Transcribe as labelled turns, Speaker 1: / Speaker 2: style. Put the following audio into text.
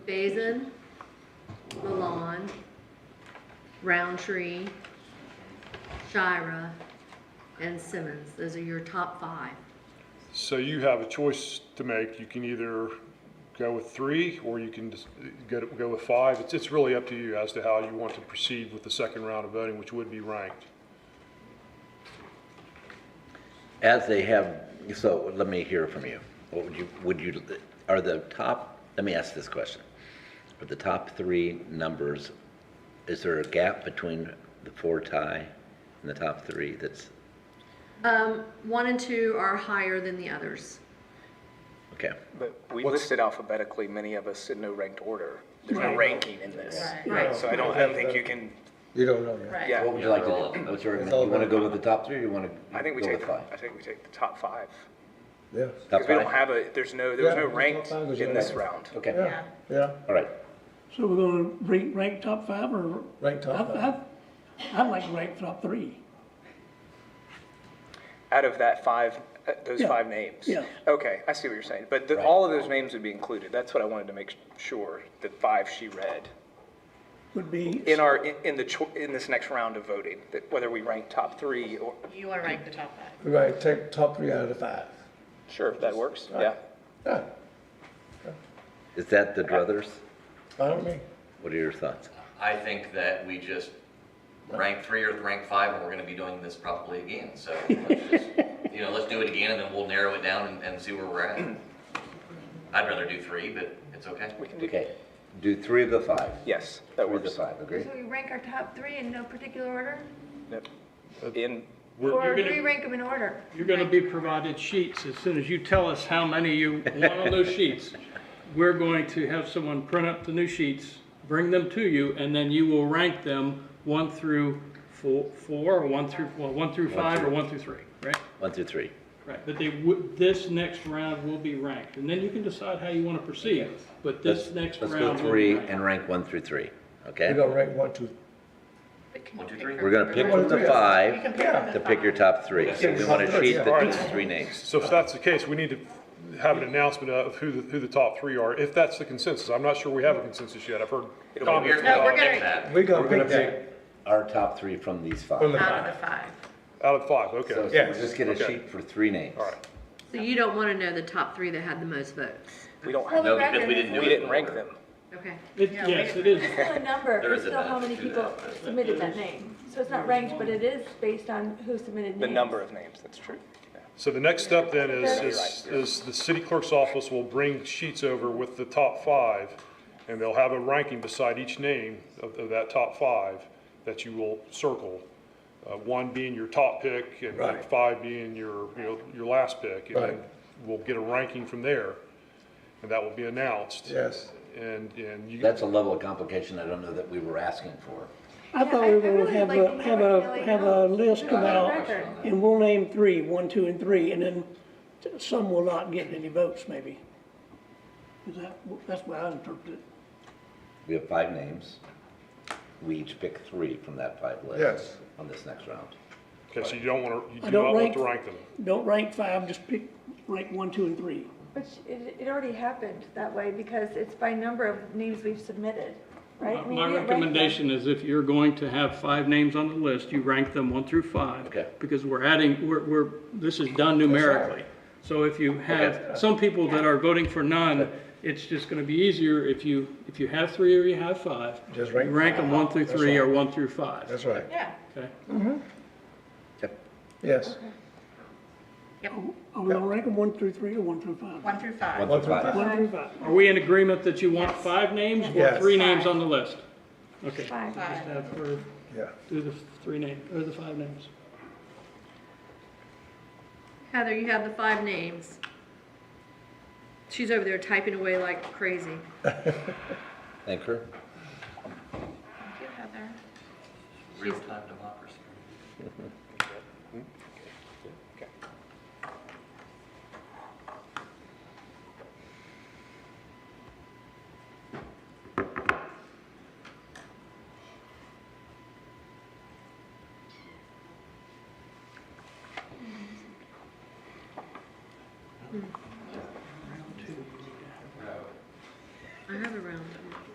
Speaker 1: Basin, Milan, Roundtree, Shira, and Simmons. Those are your top five.
Speaker 2: So you have a choice to make. You can either go with three, or you can just go, go with five. It's, it's really up to you as to how you want to proceed with the second round of voting, which would be ranked.
Speaker 3: As they have, so let me hear from you. What would you, would you, are the top, let me ask this question. Are the top three numbers, is there a gap between the four tie and the top three that's,
Speaker 1: Um, one and two are higher than the others.
Speaker 3: okay?
Speaker 4: But we
Speaker 2: What's-
Speaker 4: listed alphabetically, many of us in no ranked order. There's no
Speaker 5: Right.
Speaker 4: ranking in this.
Speaker 1: Right.
Speaker 4: So I don't, I don't think you can,
Speaker 6: You don't know yet.
Speaker 5: Right.
Speaker 4: yeah.
Speaker 3: What would you like to do? What's your,
Speaker 6: It's
Speaker 3: you
Speaker 6: all
Speaker 3: want to
Speaker 6: about-
Speaker 3: go with the top three or you want to?
Speaker 4: I think we
Speaker 3: go
Speaker 4: take,
Speaker 3: with
Speaker 4: the-
Speaker 3: five?
Speaker 4: I think we take the top five.
Speaker 6: Yeah,
Speaker 3: Top
Speaker 4: Because we don't
Speaker 3: five?
Speaker 4: have a, there's no, there was
Speaker 6: Yeah,
Speaker 4: no
Speaker 6: the top
Speaker 4: ranked
Speaker 6: five was
Speaker 4: in
Speaker 6: your
Speaker 4: this
Speaker 6: ranked.
Speaker 4: round.
Speaker 3: Okay,
Speaker 5: Yeah.
Speaker 6: yeah,
Speaker 3: all right.
Speaker 7: So we're gonna rank, rank top five or?
Speaker 6: Rank top
Speaker 7: I-
Speaker 6: five.
Speaker 7: I- I'd like to rank top three.
Speaker 4: Out of that five, uh, those
Speaker 7: Yeah.
Speaker 4: five names.
Speaker 7: Yeah.
Speaker 4: Okay, I see what you're saying. But the- all of those names would be included. That's what I wanted to make sure, the five she read.
Speaker 7: Would be,
Speaker 4: In our, in in the, cho- in this next round of voting, that whether we rank top three or,
Speaker 5: You want to rank the top five.
Speaker 6: we're gonna take top three out of the five.
Speaker 4: sure, if that works, yeah.
Speaker 6: Yeah,
Speaker 3: Is that the druthers?
Speaker 6: fine with me.
Speaker 3: What are your thoughts?
Speaker 8: I think that we just rank three or rank five, and we're gonna be doing this probably again, so let's just, you know, let's do it again, and then we'll narrow it down and, and see where we're at. I'd rather do three, but it's okay.
Speaker 4: We can do,
Speaker 3: Okay, do three of the five.
Speaker 4: yes, that
Speaker 3: Three of the
Speaker 4: works.
Speaker 3: five, agree?
Speaker 5: So we rank our top three in no particular order?
Speaker 4: Yep. In,
Speaker 5: Or
Speaker 9: You're
Speaker 5: do we
Speaker 9: gonna,
Speaker 5: rank them in order?
Speaker 9: you're gonna be provided sheets as soon as you tell us how many you want on those sheets. We're going to have someone print up the new sheets, bring them to you, and then you will rank them one through four, four, or one through, well, one through five, or one through three, right?
Speaker 3: One through three.
Speaker 9: Right, but they would, this next round will be ranked, and then you can decide how you wanna proceed, but this
Speaker 3: Let's-
Speaker 9: next
Speaker 3: Let's go
Speaker 9: round will be
Speaker 3: three
Speaker 9: ranked.
Speaker 3: and rank one through three,
Speaker 6: We're
Speaker 3: okay?
Speaker 6: gonna rank one, two.
Speaker 8: One, two, three.
Speaker 3: We're gonna pick
Speaker 6: Well,
Speaker 3: from the
Speaker 6: yeah.
Speaker 3: five
Speaker 5: can pick from the
Speaker 3: to pick your top three. So we want a sheet that
Speaker 2: Yeah.
Speaker 3: has three names.
Speaker 2: So if that's the case, we need to have an announcement of who the, who the top three are, if that's the consensus. I'm not sure we have a consensus yet. I've heard
Speaker 4: It'll be
Speaker 2: comments
Speaker 8: Here's
Speaker 5: No,
Speaker 8: how
Speaker 5: we're
Speaker 8: I'll pick
Speaker 5: gonna-
Speaker 8: that.
Speaker 6: We're gonna
Speaker 3: We're gonna
Speaker 6: pick that
Speaker 3: pick our top three from these five.
Speaker 6: from the
Speaker 3: So
Speaker 5: Out
Speaker 6: five.
Speaker 5: of the five.
Speaker 2: out of five,
Speaker 3: so
Speaker 2: okay.
Speaker 3: we'll just get a
Speaker 2: Okay.
Speaker 3: sheet for three names.
Speaker 1: So you don't want to know the top three that had the most votes.
Speaker 4: we don't,
Speaker 5: Well,
Speaker 4: have-
Speaker 8: No, because we didn't do it.
Speaker 4: we didn't
Speaker 8: in
Speaker 4: rank
Speaker 8: order.
Speaker 4: them.
Speaker 1: Okay.
Speaker 9: It- Yes, it is,
Speaker 10: It's still a number,
Speaker 8: There
Speaker 10: it's
Speaker 8: is a
Speaker 10: still how many
Speaker 8: benefit to
Speaker 10: people
Speaker 8: that.
Speaker 10: submitted that name. So it's not ranked, but it is based on who submitted names.
Speaker 4: The number of names, that's true.
Speaker 2: So the next step then is,
Speaker 10: You're
Speaker 2: is, is the city clerk's office will bring sheets over with the top five, and they'll have a ranking beside each name of, of that top five that you will circle. Uh, one being your top pick and
Speaker 6: Right.
Speaker 2: five being your, you know, your last pick. and
Speaker 6: Right.
Speaker 2: We'll get a ranking from there, and that will be announced.
Speaker 6: Yes.
Speaker 2: And, and you.
Speaker 3: That's a level of complication I don't know that we were asking for.
Speaker 7: I thought we were gonna have a, have a, have a list come out, and we'll name three, one, two, and three, and then t- some will not get any votes, maybe. Is that, that's what I interpreted.
Speaker 3: We have five names. We each pick three from that five list.
Speaker 6: Yes.
Speaker 3: On this next round.
Speaker 2: Okay, so you don't want to, you
Speaker 7: I
Speaker 2: do
Speaker 7: don't
Speaker 2: not want
Speaker 7: rank-
Speaker 2: to rank them.
Speaker 7: Don't rank five, just pick, rank one, two, and three.
Speaker 10: Which, it, it already happened that way because it's by number of names we've submitted, right? I mean,
Speaker 9: My
Speaker 10: we didn't rank them.
Speaker 9: recommendation is if you're going to have five names on the list, you rank them one through five.
Speaker 3: Okay.
Speaker 9: Because we're adding, we're, we're, this is done numerically. So if you have some people that are voting for none, it's just gonna be easier if you, if you have three or you have five.
Speaker 6: Just rank
Speaker 9: you Rank them one through
Speaker 6: That's
Speaker 9: three or
Speaker 6: right.
Speaker 9: one through five.
Speaker 6: That's right,
Speaker 5: Yeah.
Speaker 9: Okay,
Speaker 3: Yep.
Speaker 6: yes.
Speaker 7: Are we gonna rank them one through three or one through five?
Speaker 5: One through five.
Speaker 3: One
Speaker 6: One
Speaker 3: through
Speaker 6: through
Speaker 3: five.
Speaker 6: five.
Speaker 7: One through five.
Speaker 9: are we in agreement that you want five names or
Speaker 6: Yes.
Speaker 9: three names on the list? Okay.
Speaker 10: Five.
Speaker 9: Just have her
Speaker 6: Yeah,
Speaker 9: do the three name, or the five names.
Speaker 1: Heather, you have the five names. She's over there typing away like crazy.
Speaker 3: Thank her.
Speaker 5: Thank you, Heather.
Speaker 8: Real-time democracy.